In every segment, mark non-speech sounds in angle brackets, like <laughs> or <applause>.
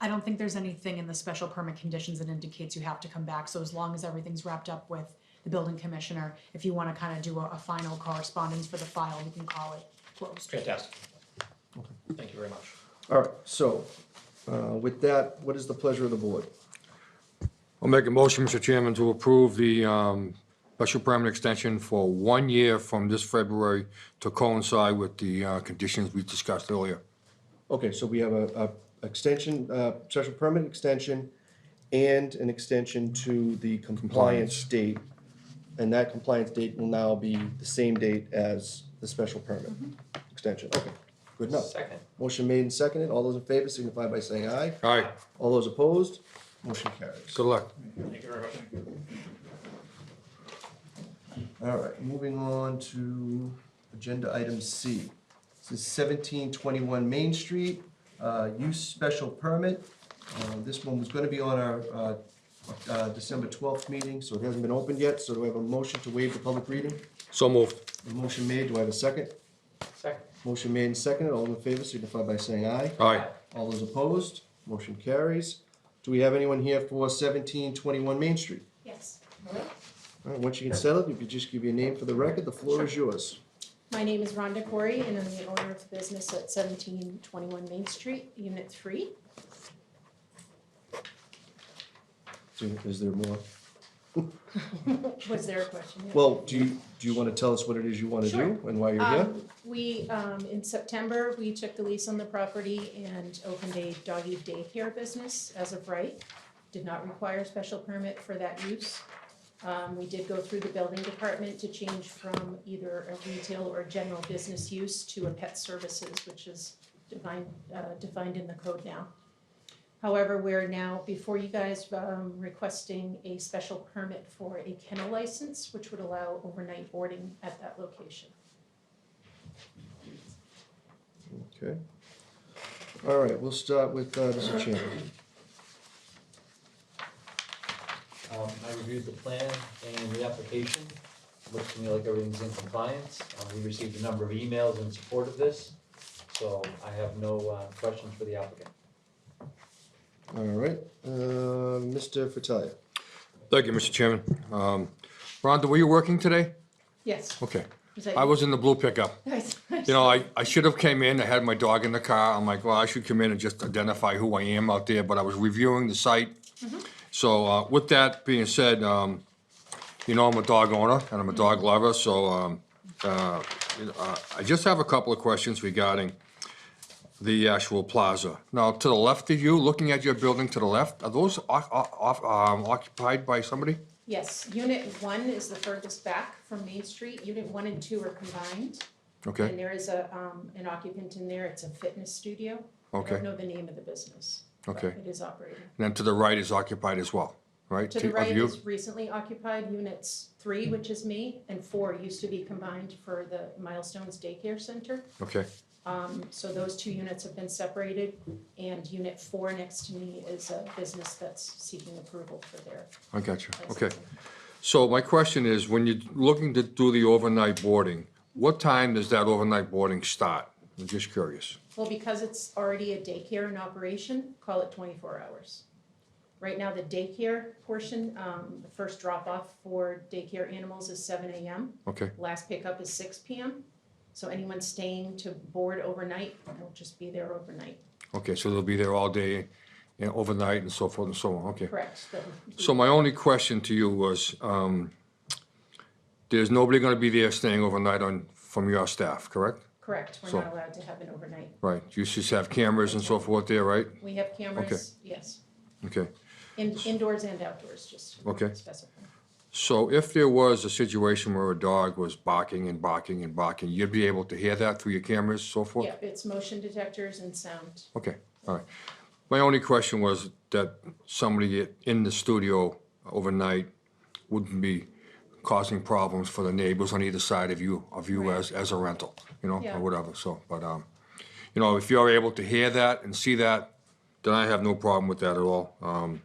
I don't think there's anything in the special permit conditions that indicates you have to come back, so as long as everything's wrapped up with the building commissioner, if you wanna kinda do a, a final correspondence for the file, we can call it closed. Fantastic. Thank you very much. All right, so, uh, with that, what is the pleasure of the board? I'll make a motion, Mr. Chairman, to approve the um, special permit extension for one year from this February to coincide with the uh, conditions we discussed earlier. Okay, so we have a, a extension, uh, special permit extension and an extension to the compliance date. And that compliance date will now be the same date as the special permit extension. Okay, good enough. Second. Motion made and seconded. All those in favor signify by saying aye. All right, All those opposed, motion carries. good luck. Thank you very much. All right, moving on to agenda item C. This is seventeen twenty-one Main Street, uh, use special permit. Uh, this one was gonna be on our, uh, uh, December twelfth meeting, so it hasn't been opened yet, so do I have a motion to waive the public reading? So moved. A motion made, do I have a second? Second. Motion made and seconded, all in favor signify by saying aye. All right, All those opposed, motion carries. Do we have anyone here for seventeen twenty-one Main Street? Yes. All right, once you get settled, if you just give your name for the record, the floor is yours. My name is Rhonda Corey and I'm the owner of the business at seventeen twenty-one Main Street, Unit Three. So Is there more? Was there a question? Yeah. Well, do you, do you want to tell us what it is you want to do Sure. and why you're here? Um, We, um, in September, we took the lease on the property and opened a doggy daycare business as of right. Did not require special permit for that use. Um, we did go through the building department to change from either a retail or general business use to a pet services, which is defined, uh, defined in the code now. However, we're now before you guys, um, requesting a special permit for a kennel license, which would allow overnight boarding at that location. Okay. All right, we'll start with uh, Mr. Chairman. Um, I reviewed the plan and the application, looks to me like everything's in compliance. Um, we received a number of emails in support of this, so I have no, uh, questions for the applicant. All right, uh, Mr. Fratelli. Thank you, Mr. Chairman. Um, Rhonda, were you working today? Yes. Okay. Is that I you? was in the blue pickup. <laughs> Nice. You know, I, I should have came in, I had my dog in the car, I'm like, well, I should come in and just identify who I am out there, but I was reviewing the site. Mm-hmm. So, uh, with that being said, um, you know, I'm a dog owner and I'm a dog Mm-hmm. lover, so, um, uh, you know, uh, I just have a couple of questions regarding the actual plaza. Now, to the left of you, looking at your building to the left, are those oc- oc- um, occupied by somebody? Yes, unit one is the furthest back from Main Street, unit one and two are combined. And Okay, there is a, um, an occupant in there, it's a fitness studio. I Okay. don't know the name of the business. but Okay. It is operating. and then to the right is occupied as well, right? To the of right you? is recently occupied units three, which is me, and four used to be combined for the Milestones Daycare Center. Okay, Um, so those two units have been separated, and unit four next to me is a business that's seeking approval for their I got you, okay. licensing. So my question is, when you're looking to do the overnight boarding, what time does that overnight boarding start? I'm just curious. Well, because it's already a daycare in operation, call it twenty-four hours. Right now, the daycare portion, um, the first drop-off for daycare animals is seven AM. Okay, Last pickup is six PM. So anyone staying to board overnight, they'll just be there overnight. okay, so they'll be there all day and overnight and so forth and so on, okay. Correct. The- So my only question to you was, um, there's nobody gonna be there staying overnight on, from your staff, correct? Correct. We're So- not allowed to have an overnight. Right, you just have cameras and so forth there, right? We have cameras, yes, Okay. in, indoors and outdoors, just Okay. to specify. So if there was a situation where a dog was barking and barking and barking, you'd be able to hear that through your cameras, so forth? Yeah, it's motion detectors and sound. Okay, all right. My only question was that somebody in the studio overnight wouldn't be causing problems for the neighbors on either side of you, of you Right. as, as a rental, you know, Yeah. or whatever, so, but, um, you know, if you're able to hear that and see that, then I have no problem with that at all. Um,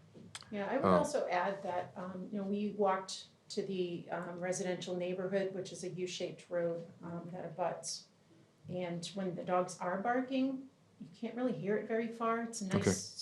Yeah, I would also add that, um, you know, we walked to the, um, residential neighborhood, which is a U-shaped road, um, that abuts. And when the dogs are barking, you can't really hear it very far, it's a Okay. nice